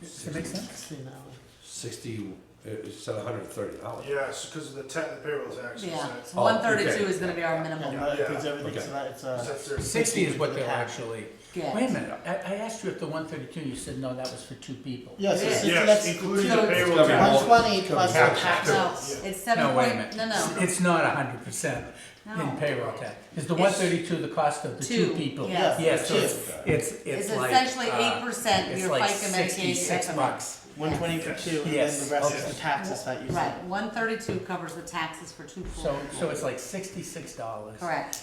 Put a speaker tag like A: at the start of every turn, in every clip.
A: Does it make sense?
B: Sixty an hour.
C: Sixty, it's at hundred and thirty dollars.
D: Yes, because of the ta- the payroll taxes.
B: Yeah,
D: that's-
B: so one
C: okay.
B: thirty-two is gonna be our And minimum, that includes
D: Yeah.
B: everything, so
C: Okay.
B: that it's
D: that's
B: uh
A: Sixty is
D: their-
A: what
B: Sixty
A: they'll
B: for the pack.
A: actually, wait
B: yeah.
A: a minute, I, I asked you if the one thirty-two, you said, no, that was for two people.
B: Yes,
D: Yes,
B: it's,
D: Yes,
B: it's,
D: including
B: so
D: the
B: it's
D: payroll
C: gotta be
D: tax.
B: one
C: all-
B: twenty plus the
C: Gotta be
B: tax.
D: all-
B: No, it's seven
A: No, wait a
B: point,
A: minute.
B: no, no,
A: It's not hundred percent in
B: No.
A: payroll tax. Is the
B: It's-
A: one thirty-two the cost of the two
B: Two,
A: people?
B: yeah.
A: Yes, so it's, it's,
B: it's
A: it's like.
B: essentially
A: uh,
B: eight percent
A: It's
B: your
A: like
B: FICA Medicaid
A: sixty-six
B: economic.
A: bucks.
B: One twenty
D: for Yes.
B: two,
A: and then Yes. the rest is the
B: taxes that
E: you
B: Right, one thirty-two covers the taxes for two full
A: So, so
B: people,
A: it's like sixty-six dollars
B: correct,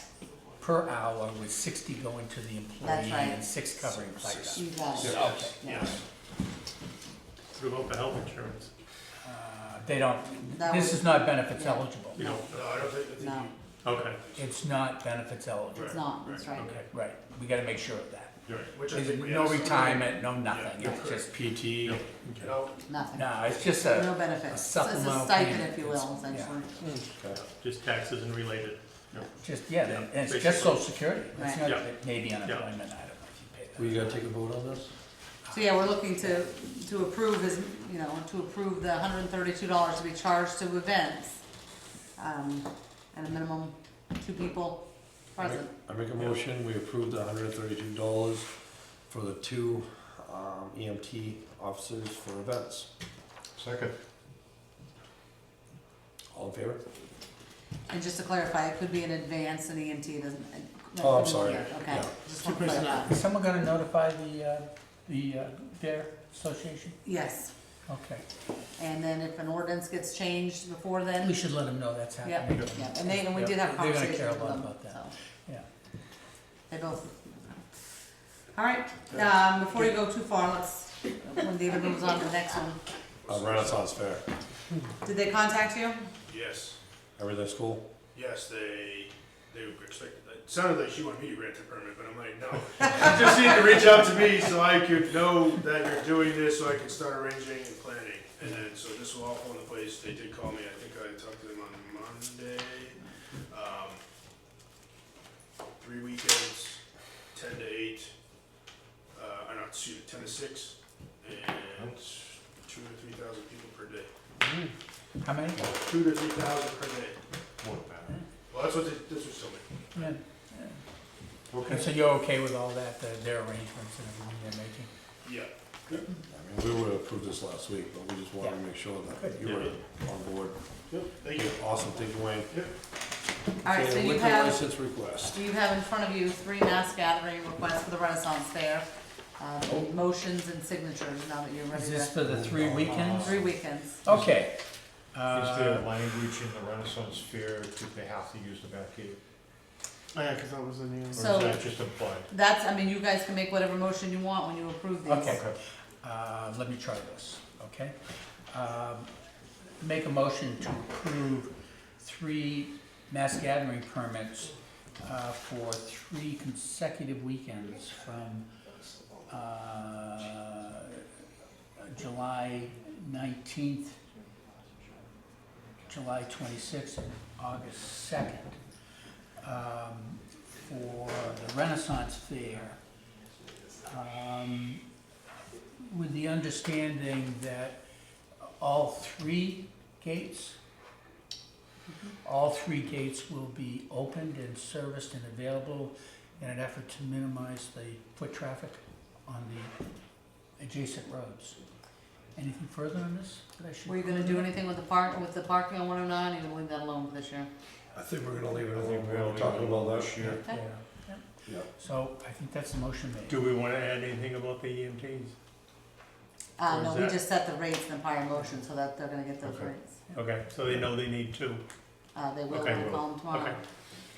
A: per hour with sixty going to the employee
B: right.
A: and six covering FICA.
B: you got it,
C: Yeah.
B: yeah.
F: Throughout the health insurance,
A: Uh, They don't,
B: That
A: this
B: would-
A: is not benefits
B: Yeah.
A: eligible.
F: you don't,
D: No, I don't think, I think
B: No,
D: you-
F: okay,
A: It's not benefits eligible.
B: it's not, that's right.
A: Okay, right, we gotta make sure of that.
F: you're right.
D: which I
A: There's
D: think we
A: no
D: asked.
A: retirement, no nothing,
D: Yeah,
A: it's just PT.
D: You know,
B: Nothing,
A: No, it's just
B: no
A: uh, a,
B: benefits. It's- It's a
A: supplemental
B: stipend,
A: payment.
B: if you will,
A: It's- yeah.
B: essentially.
F: Just taxes and related.
A: just, yeah, and it's
F: Yeah,
A: just social security. It's
B: Right.
A: not,
F: Yeah.
A: maybe unemployment, I don't know if you pay that.
C: Were you gonna take a vote on this?
B: So, yeah, we're looking to, to approve his, you know, to approve the hundred and thirty-two dollars to be charged to events. Um, and a minimum two people present.
C: I make a motion, we approve the hundred and thirty-two dollars for the two, um, EMT officers for events.
G: Second.
C: All in favor?
B: And just to clarify, it could be an advance and EMT doesn't. it-
C: Oh, I'm
B: doesn't
C: sorry.
B: care. Okay,
C: Yeah.
B: just want to Two-person
A: Is
B: clarify.
A: someone gonna notify the, uh, the, uh, their association?
B: Yes,
A: Okay,
B: and then if an ordinance gets changed before
A: we
B: then,
A: should let them know that's
B: yep,
A: happening.
B: yep, and they, and we did have
A: They're
B: a
A: gonna
B: conversation
A: care a
B: with
A: lot
B: them,
A: about that.
B: so.
A: Yeah.
B: They both. All right, um, before you go too far, let's, when David moves on to the next one,
C: Uh, Renaissance Fair,
B: did they contact you?
D: Yes,
C: everything's cool?
D: yes, they, they were expected, it sounded like she wanted me to grant the permit, but I'm like, no. You Just need to reach out to me so I could know that you're doing this, so I can start arranging and planning. And then, so this will all fall into place, they did call me, I think I talked to them on Monday. Um, Three weekends, ten to eight, uh, I know, excuse me, ten to six, and two to three thousand people per day.
A: How many?
D: Two to three thousand per day.
G: More than that.
D: Well, that's what they, this was told me.
A: Yeah. And
G: Okay.
A: so you're okay with all that, the- their arrangements and everything they're making?
D: Yeah.
C: I mean, we would've approved this last week, but we just wanted to make sure that you were on board.
D: Yep. Thank you.
C: Awesome, thank you, Wayne.
B: All right,
C: Okay,
B: so you
C: liquor
B: have,
C: License request.
B: you have in front of you three mass gathering requests for the Renaissance Fair, um, motions and signatures, now that you're ready
A: Is this
B: to,
A: for the three weekends?
B: three weekends.
A: Okay.
G: Is there
A: Uh,
G: language in the Renaissance Fair, do they have to use the back gate?
E: yeah, because that was a new.
G: Or
B: So-
G: is that just implied?
B: That's, I mean, you guys can make whatever motion you want when you approve these.
A: Okay, uh, let me try this, okay? Um, Make a motion to approve three mass gathering permits uh, for three consecutive weekends from uh, July 19th, July 26th, and August 2nd. um, For the Renaissance Fair, um, with the understanding that all three gates, all three gates will be opened and serviced and available in an effort to minimize the foot traffic on the adjacent roads. Anything further on this that I should?
B: Were you gonna do anything with the park, with the parking on one oh nine, or you gonna leave that alone for this year?
C: I think we're gonna leave it
G: I think
C: alone,
G: we
C: we're
G: only
C: talking
G: know
C: about that.
G: this year.
A: Yeah,
B: Okay.
A: yeah.
C: Yeah.
A: So I think that's the motion made.
F: Do we wanna add anything about the E EMTs?
B: Uh,
F: Or
B: no,
F: is
B: we
F: that-
B: just set the rates in the prior motion, so that they're gonna get those
G: Okay.
B: rates.
F: Okay, so they know they need two.
B: Uh, they will
F: Okay,
B: when we call them tomorrow.
F: Okay.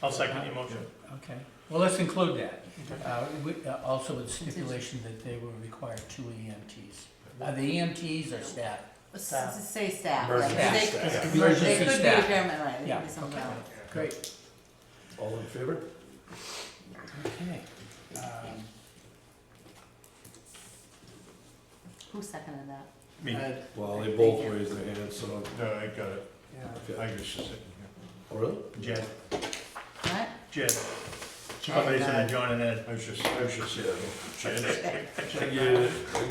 F: I'll second your motion.
A: Okay, well, let's include that. Uh, we- uh, Also with stipulation that they will require two EMTs. Are the EMTs or staff?
B: S-
A: Staff.
B: s- Say staff, right?
C: Emergency
B: They-
C: staff.
B: they
A: Emergency
B: could be
A: staff.
B: repairmen, right? They could
A: Yeah,
B: be something
A: okay.
B: else.
A: Great,
C: All in favor?
A: okay. Um,
B: Who seconded that?
F: Me,
C: Well, they both raised their hands, so.
G: No, I got it. I was just sitting
C: Oh, Really?
F: Jed,
B: What?
F: Jed. Somebody said John and Ed.
G: here. I was just, I was just sitting here.
C: Thank you.